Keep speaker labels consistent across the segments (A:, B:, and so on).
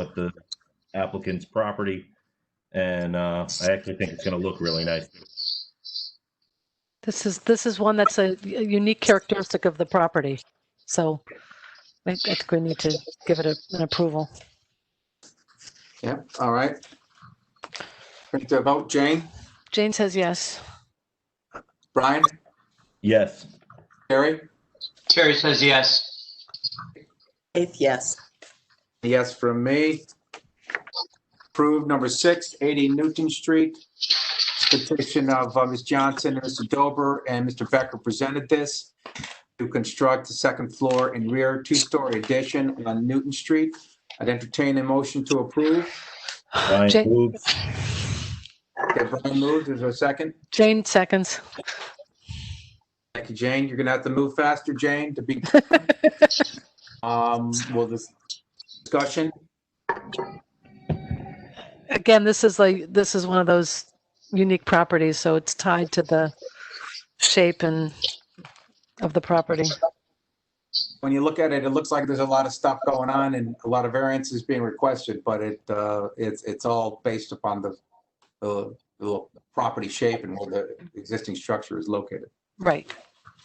A: up the applicant's property. And uh, I actually think it's going to look really nice.
B: This is, this is one that's a a unique characteristic of the property. So I I think we need to give it a- an approval.
C: Yep, all right. Bring it to a vote, Jane,
B: Jane says yes.
C: Brian,
A: Yes,
C: Terry,
D: Terry says yes.
E: Faith, yes.
C: yes from me. Approved number six, 80 Newton Street. Petition of uh, Ms. Johnson and Mr. Dober and Mr. Becker presented this to construct the second floor and rear two-story addition on Newton Street. I'd entertain a motion to approve.
A: Brian
B: Jane-
A: moves.
C: Okay, Brian moves, is there a second?
B: Jane seconds.
C: Thank you, Jane. You're gonna have to move faster, Jane, to be. Um, well, this discussion,
B: Again, this is like, this is one of those unique properties, so it's tied to the shape and of the property.
C: when you look at it, it looks like there's a lot of stuff going on and a lot of variances being requested, but it, uh, it's, it's all based upon the, the, the property shape and where the existing structure is located.
B: Right.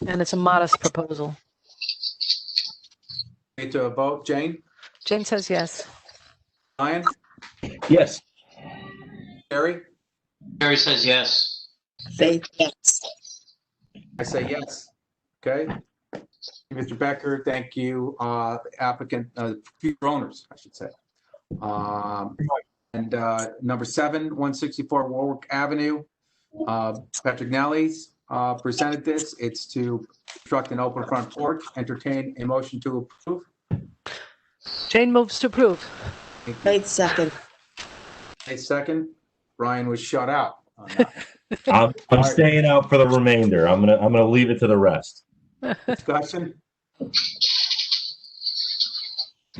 B: And it's a modest proposal.
C: Okay, to a vote, Jane,
B: Jane says yes.
C: Ryan,
A: Yes,
C: Terry,
D: Terry says yes.
E: Faith, yes.
C: I say yes. Okay? Mr. Becker, thank you, uh, applicant, uh, future owners, I should say. Um, and, uh, number seven, one sixty-four Warwick Avenue. Uh, Patrick Nellie's, uh, presented this. It's to construct an open front porch, entertain a motion to approve.
B: Jane moves to approve.
E: Faith, second.
C: A second, Ryan was shut out. on that.
A: I'm, I'm staying out for the remainder. I'm gonna I'm gonna leave it to the rest.
C: Discussion?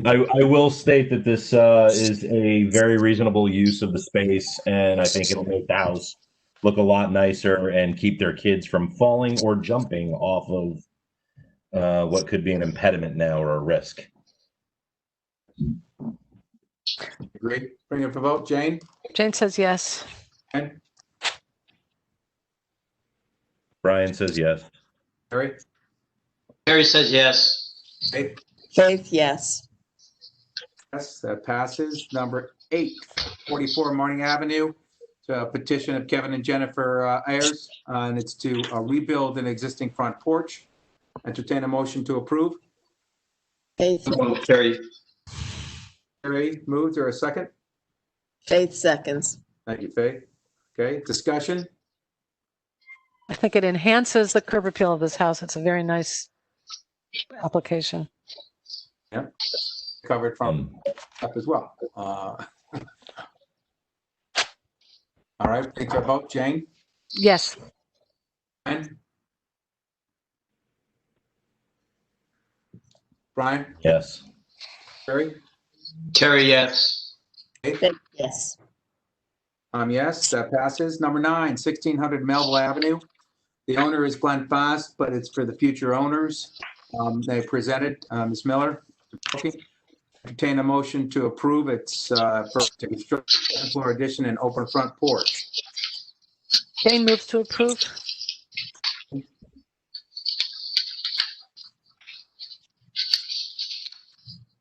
A: I, I will state that this uh, is a very reasonable use of the space, and I think it'll make the house look a lot nicer and keep their kids from falling or jumping off of uh, what could be an impediment now or a risk.
C: Great. Bring it for vote. Jane?
B: Jane says yes.
C: Ken?
A: Brian says yes.
C: Terry?
D: Terry says yes.
C: Faith?
E: Faith, yes.
C: Yes, that passes. Number eight, 44 Morning Avenue, It's a petition of Kevin and Jennifer uh, Ayers, uh, and it's to uh, rebuild an existing front porch. Entertain a motion to approve.
E: Faith,
D: Terry.
C: Terry moved, or a second?
E: Faith, seconds.
C: Thank you, Faith. Okay, discussion?
B: I think it enhances the curb appeal of this house. It's a very nice application.
C: Covered from
A: Um,
C: up as well. Uh, All right, take your vote. Jane?
B: Yes.
C: Brian? Brian?
A: yes.
C: Terry?
D: Terry, yes.
E: Faith, yes.
C: Um, yes, that passes. Number nine, 1600 Melville Avenue. The owner is Glenn Foss, but it's for the future owners. Um, they presented, uh, Ms. Miller. Contain a motion to approve its, uh, for, to construct a second floor addition and open front porch.
B: Jane moves to approve.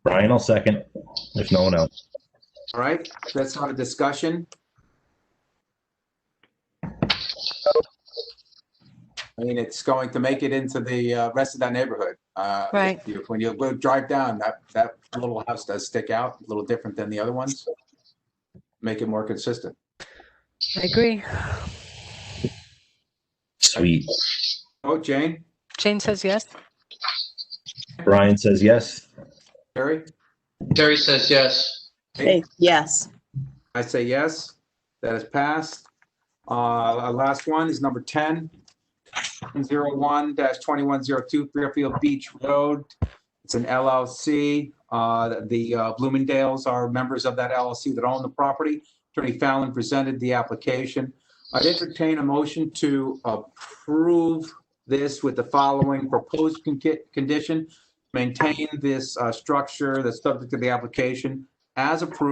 A: Brian, I'll second if no one else.
C: All right, that's not a discussion. I mean, it's going to make it into the, uh, rest of that neighborhood. Uh,
B: Right.
C: if you- When you go drive down, that, that little house does stick out, a little different than the other ones. Make it more consistent.
B: I agree.
A: Sweet.
C: Oh, Jane,
B: Jane says yes.
A: Brian says yes.
C: Terry,
D: Terry says yes.
E: Faith, yes.
C: I say yes, that is passed. Uh, our last one is number ten. Zero one dash twenty-one zero two Fairfield Beach Road. It's an LLC. Uh, the uh, Bloomingdale's are members of that LLC that own the property. Attorney Fallon presented the application. I'd entertain a motion to approve this with the following proposed con- condition. Maintain this, uh, structure that's subject to the application as approved